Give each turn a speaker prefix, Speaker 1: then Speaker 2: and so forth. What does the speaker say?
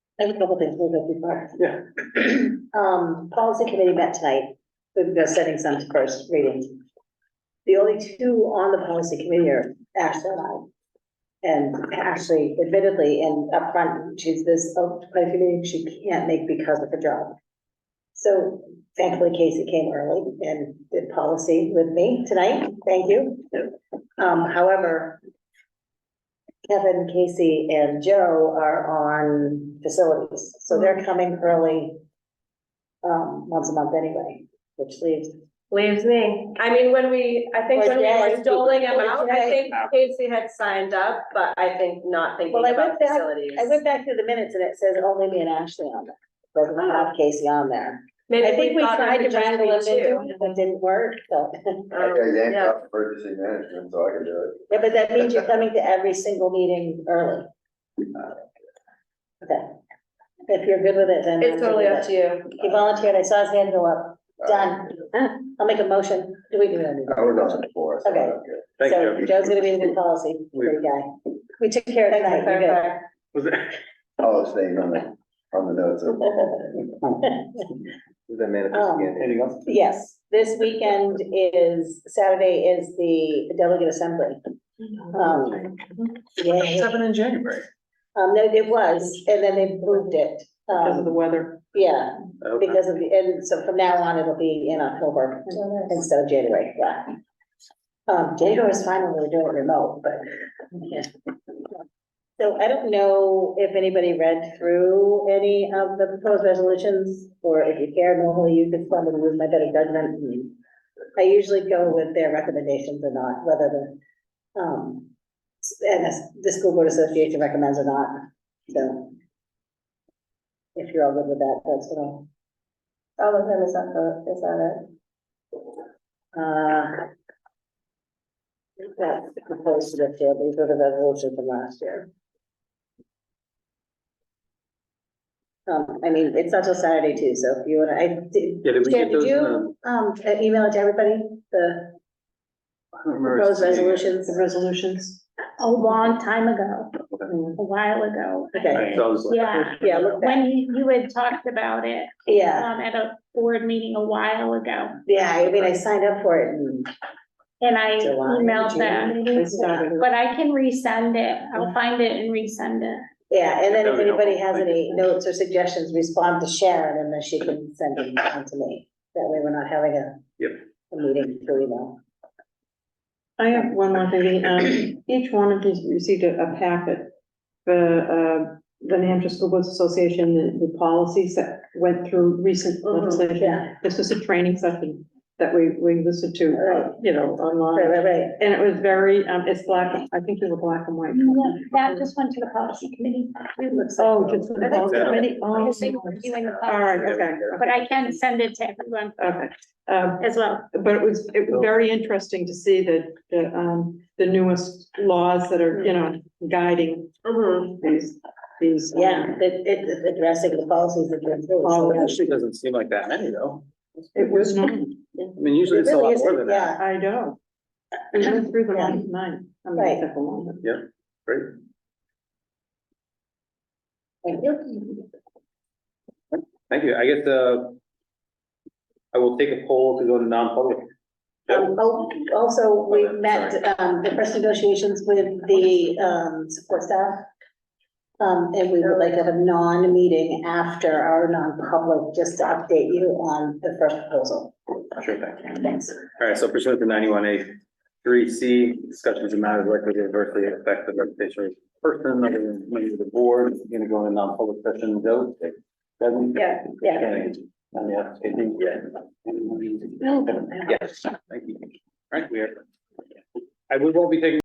Speaker 1: I have a couple things we'll go before.
Speaker 2: Yeah.
Speaker 1: Um, policy committee met tonight, we've been setting some to first reading. The only two on the policy committee are Ashley and I. And Ashley admittedly, and upfront, she's this, oh, quite a few meetings she can't make because of her job. So thankfully Casey came early and did policy with me tonight, thank you. Um, however, Kevin, Casey, and Joe are on facilities, so they're coming early. Um, once a month anyway, which leaves,
Speaker 3: Leaves me. I mean, when we, I think when we
Speaker 1: Or
Speaker 3: were
Speaker 1: Jay.
Speaker 3: doling them out, I
Speaker 1: Or Jay.
Speaker 3: think Casey had signed up, but I think not thinking
Speaker 1: Well, I
Speaker 3: about
Speaker 1: went back-
Speaker 3: facilities.
Speaker 1: I went back through the minutes and it says only me and Ashley on there. Doesn't
Speaker 3: Oh.
Speaker 1: have Casey on there. I think we
Speaker 3: thought it
Speaker 1: tried to
Speaker 3: would just
Speaker 1: wrangle
Speaker 3: be
Speaker 1: him
Speaker 3: two.
Speaker 1: into it, but didn't work, so.
Speaker 3: Um,
Speaker 4: I got yanked
Speaker 3: yeah.
Speaker 4: off emergency management, so I can do
Speaker 1: Yeah, but that means you're coming to every single meeting early. Okay. If you're good with it, then.
Speaker 3: It's
Speaker 1: I'm good
Speaker 3: totally
Speaker 1: with
Speaker 3: up
Speaker 1: it.
Speaker 3: to you.
Speaker 1: He volunteered, I saw his hand go up,
Speaker 4: it.
Speaker 1: done. I'll make a motion, do we do
Speaker 4: I
Speaker 1: that?
Speaker 4: was on it before, so I don't care.
Speaker 2: Thank
Speaker 1: So
Speaker 2: you.
Speaker 1: Joe's gonna be the new policy, great guy. We took care of it tonight,
Speaker 3: Thanks for
Speaker 1: you're good.
Speaker 3: clarifying.
Speaker 2: Was it,
Speaker 4: I'll stay Oh, on the, on the notes. of-
Speaker 5: Is that manifest
Speaker 1: Um,
Speaker 5: again?
Speaker 2: anything else?
Speaker 1: Yes, this weekend is, Saturday is the delegate assembly. Um, yay.
Speaker 2: in January.
Speaker 1: Um, no, it was, and then they moved it.
Speaker 2: Because of the
Speaker 1: Um,
Speaker 2: weather.
Speaker 1: yeah,
Speaker 2: Okay.
Speaker 1: because of the, and so from now on, it'll be in October instead of January, yeah. Um, January is fine when we're doing it remote, but, yeah. So I don't know if anybody read through any of the proposed resolutions, or if you care, normally you could fund and use my better judgment. and I usually go with their recommendations or not, whether the, um, s- and the, the school board association recommends or not, so. If you're all good with that, that's what I'll.
Speaker 3: All of them is up for, is that
Speaker 1: Uh, That's proposed to the field, these are the resolutions from last year. Um, I mean, it's not till Saturday too, so if you wanna, I did.
Speaker 2: Yeah, did we
Speaker 1: Jan,
Speaker 2: get those?
Speaker 1: you, Um, uh, email it to everybody, the proposed resolutions? Resolutions.
Speaker 6: a long time ago, a while ago.
Speaker 1: Okay,
Speaker 6: Yeah,
Speaker 1: yeah, look back,
Speaker 6: when you, you had talked about it,
Speaker 1: yeah,
Speaker 6: um, at a board meeting a while ago,
Speaker 1: yeah, I mean, I signed up for it and.
Speaker 6: and I
Speaker 1: July,
Speaker 6: emailed
Speaker 1: June.
Speaker 6: them. But I can resend it, I'll find it and resend it.
Speaker 1: Yeah, and then if
Speaker 2: That'd be helpful.
Speaker 1: anybody has
Speaker 2: Thank you.
Speaker 1: any notes or suggestions, respond to Sharon and then she can send them on to me. That way we're not having a.
Speaker 2: Yep.
Speaker 1: A meeting through email.
Speaker 7: I have one more thing, um, each one of these received a, a packet for, uh, the New Hampshire School Boards Association, the, the policies that went through recent
Speaker 1: Mhm, yeah.
Speaker 7: legislation. This was a training session that we, we listened to,
Speaker 1: Right.
Speaker 7: uh, you know,
Speaker 1: Right,
Speaker 7: online,
Speaker 1: right, right.
Speaker 7: and it was very, um, it's black, I think it was black and white.
Speaker 6: No, That just went to the policy committee.
Speaker 1: It looks like-
Speaker 7: Oh, just the policy committee,
Speaker 6: I
Speaker 7: oh,
Speaker 6: think we're doing the
Speaker 7: all
Speaker 6: policy,
Speaker 7: right, okay,
Speaker 6: But I can send it to everyone
Speaker 7: okay. Um,
Speaker 6: as well.
Speaker 7: but it was, it was very interesting to see the, the, um, the newest laws that are, you know, guiding
Speaker 3: Mm-hmm.
Speaker 7: these, these. um,
Speaker 1: Yeah, it, it, it's addressing the policies that you're.
Speaker 7: Oh, yeah.
Speaker 2: Actually, doesn't seem like that many though.
Speaker 7: It was not,
Speaker 2: I mean, usually it's a lot more than that.
Speaker 7: I know. We went through the last nine. I mean,
Speaker 1: Right.
Speaker 7: except for one.
Speaker 2: Great.
Speaker 1: Thank you.
Speaker 2: Thank you. I guess, uh, I will take a poll to go to non-public.
Speaker 1: Um, oh, also, we met, um, the first negotiations with the, um, support staff. Um, and we would like to have a non-meeting after our non-public, just to update you on the first proposal.
Speaker 2: Sure thing.
Speaker 1: Thanks.
Speaker 2: All right, so pursuant to ninety-one A three C, discussions of matters likely to adversely affect the reputation of a person other than a member of the board, We're gonna go into non-public session, Joe? Devin?
Speaker 3: Yeah,
Speaker 1: yeah.
Speaker 2: And yes, I think, yeah. Yes, thank you. All right, we are. I, we won't be taking